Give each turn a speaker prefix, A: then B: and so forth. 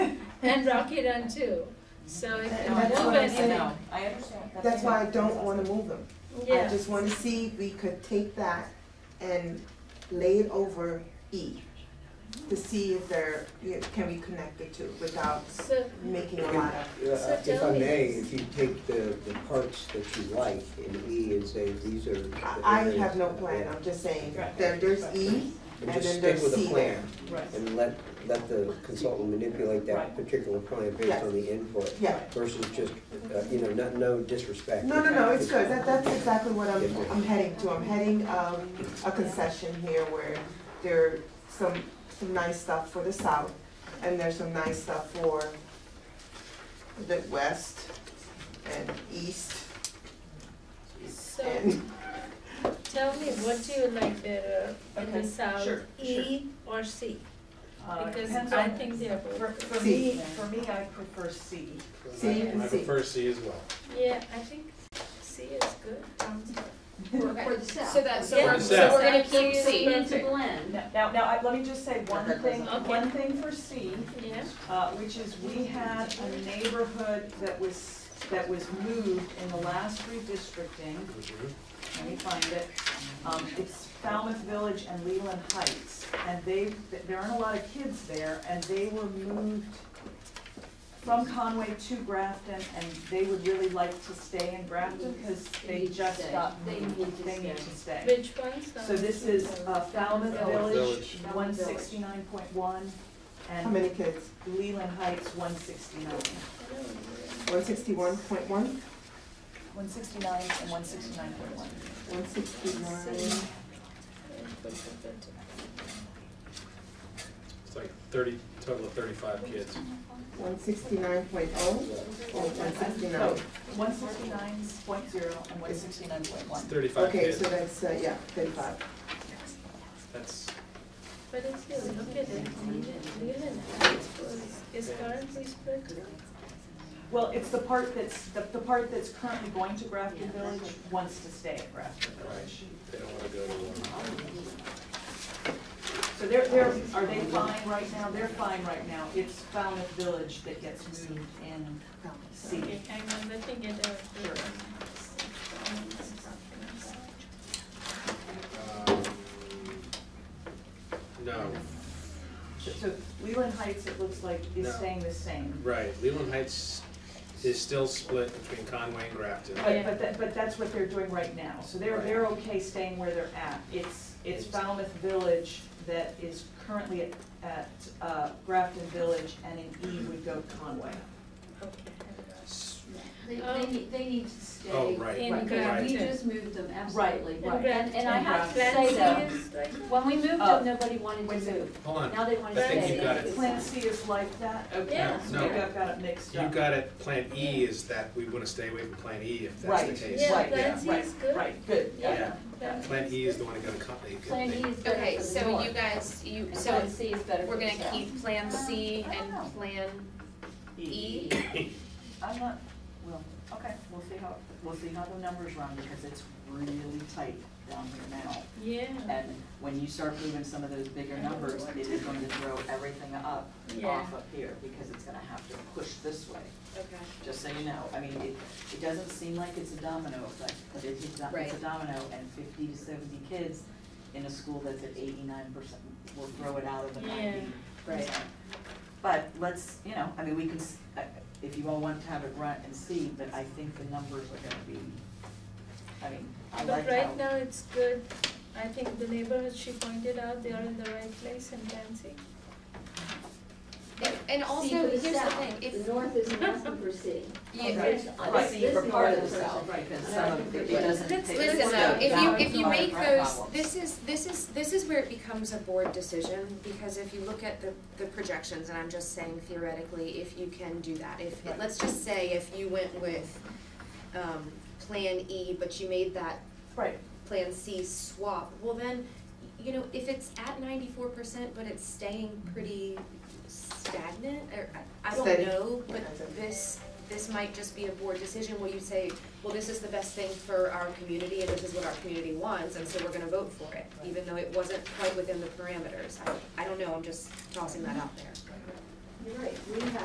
A: and Rocky Run too. So if
B: And
A: you
B: that's
A: move
B: what I'm
A: it,
B: saying.
C: No, I understand.
B: That's why I don't wanna move them. I
A: yeah,
B: just wanna see if we could take that and lay it over E to see if there, you know, can we connect the two without
A: so,
B: making a lot of,
D: Yeah,
A: So
D: If
A: tell
D: I
A: me.
D: may, if you take the, the parts that you like in E and say, these are. the
B: I, I
D: areas
B: have no
D: that-
B: plan, I'm just saying,
C: Right.
B: there, there's E
D: And
B: and
D: just
B: then
D: stick
B: there's
D: with a
B: C there.
D: plan
C: Right.
D: and let, let the consultant manipulate that
C: Right.
D: particular plan based
B: Yes.
D: on the input
B: Yeah,
D: versus just, uh, you know, no, no disrespect.
B: no, no, no, it's good, that, that's exactly what I'm,
D: Yeah.
B: I'm heading to, I'm heading, um, a concession here where there are some, some nice stuff for the south, and there's some nice stuff for the west and east,
A: so
B: and
A: tell me, what do you like better in the
C: Okay,
A: south,
B: sure,
A: E or C?
C: Uh, it
A: Because
C: depends
A: I
C: on-
A: think they are both.
C: For,
A: good.
C: for me, for me, I prefer C.
B: C and
E: I
B: C.
E: prefer C as well.
A: Yeah, I think C is good, Um, sounds good.
F: Okay.
G: For the south.
F: So that, so
A: Yeah.
F: we're,
E: For
F: so
E: the
F: we're gonna
A: south.
F: keep
A: So
F: C.
A: you-
G: It's a blend.
C: Now, now, I, let me just say one thing,
A: Okay.
C: one thing for C,
A: Yeah,
C: uh, which is we had a neighborhood that was, that was moved in the last redistricting. Let me find it. Um, it's Falmouth Village and Leland Heights, and they, there aren't a lot of kids there, and they were moved from Conway to Grafton, and they would really like to stay in Grafton, because
G: They
C: they
G: need to
C: just
G: stay.
C: got
G: They
C: moved.
G: need to
C: They need
G: stay.
C: to stay.
A: which ones? Um, are-
C: So this is uh, Falmouth
E: Falmouth
C: Village,
G: Village.
C: one sixty-nine point one,
B: how
C: and
B: many kids?
C: Leland Heights, one sixty-nine.
B: One sixty-one point one,
C: One sixty-nine and one sixty-nine point one.
B: one sixty-nine,
E: It's like thirty, total of thirty-five kids.
B: one sixty-nine point oh, or one sixty-nine?
C: One sixty-nine point zero and one sixty-nine point
E: It's
C: one.
E: thirty-five
B: Okay, so
E: kids.
B: that's, uh, yeah, thirty-five.
E: That's,
A: But if you look at it, Leland Heights was, is currently split.
C: Well, it's the part that's, the, the part that's currently going to Grafton Village wants to stay at Grafton Village.
E: they don't wanna go to one.
C: So they're, they're, are they fine right now? They're fine right now. It's Falmouth Village that gets moved in C.
A: Okay, I'm looking at our.
C: Sure.
E: Um, No,
C: So Leland Heights, it looks like, is
E: No.
C: staying the same.
E: right, Leland Heights is still split between Conway and Grafton.
C: But, but that, but that's what they're doing right now, so they're,
E: Right.
C: they're okay staying where they're at. It's, it's Falmouth Village that is currently at, at, uh, Grafton Village, and in E would go Conway.
E: S-
G: They, they
A: Um,
G: need, they need to stay.
E: Oh, right,
A: In
C: Right.
G: Yeah, we
A: Grafton.
G: just moved them, absolutely.
A: And
C: Right.
G: And, and I
C: And
G: have to
A: Grafton
G: say though,
A: is like that.
G: when we moved
C: Uh,
G: them, nobody wanted
C: wait a
G: to
C: second.
G: move.
E: hold on,
G: Now they want to
A: I
G: stay.
A: think you got
E: it.
C: Plan C is like that? Okay,
A: Yeah.
C: so
E: No.
C: maybe I've got it mixed
E: you
C: up.
E: got it, Plan E is that we wanna stay away from Plan E if that's the
C: Right.
E: case.
A: Yeah,
C: Right,
A: Plan
E: yeah,
A: C is good.
C: Right, good.
E: Yeah,
A: Plan
E: Plan
A: C
E: E is the one that got a company.
G: Plan E is better
F: Okay,
G: for the
F: so
G: north,
F: you guys, you,
G: and
F: so
G: Plan C is better for
F: we're
G: the
F: gonna
G: south.
F: keep Plan C
C: I don't know.
F: and Plan E?
C: I'm not, well, okay, we'll see how, we'll see how the numbers run, because it's really tight down here now.
A: Yeah,
C: And when you start moving some of those bigger numbers, it is going to throw everything up
A: yeah,
C: off up here, because it's gonna have to push this way,
F: Okay.
C: just so you know. I mean, it, it doesn't seem like it's a domino effect, but it's a, do- it's a
F: Right.
C: domino, and fifty to seventy kids in a school that's at eighty-nine percent will throw it out of the
A: yeah.
C: ninety but let's, you know, I mean, we can, s- uh, if you all want to have it run and see, but I think the numbers are gonna be, I mean, I
A: But
C: like
A: right
C: how.
A: now it's good. I think the neighborhood she pointed out, they are in the right place in Plan C.
F: And- And also,
G: See, for the
F: here's the
G: south,
F: thing, if,
G: The north isn't asking for C.
F: Yeah,
G: Right.
F: it's-
G: This- this
C: for
G: is
C: part of
G: the
C: the
G: person.
C: south, right, because
G: And I
C: some
G: think
C: of it
G: that-
C: it doesn't.
A: Let's
C: take-
A: It's
F: Listen
C: it's
F: though,
C: not
F: if you, if
C: balance
F: you
C: on
F: make
C: our
F: those,
C: problems.
F: this is, this is, this is where it becomes a board decision, because if you look at the, the projections, and I'm just saying theoretically, if you can do that, if,
C: Right.
F: let's just say if you went with, um, Plan E, but you made that
C: Right,
F: Plan C swap, well then, you know, if it's at ninety-four percent, but it's staying pretty stagnant, or, I- I
B: Steady.
F: don't know, but
B: That's it.
F: this, this might just be a board decision where you say, well, this is the best thing for our community, and this is what our community wants, and so we're gonna vote for it, even though it wasn't quite within the parameters, I, I don't know, I'm just tossing that out there.
G: You're right, we have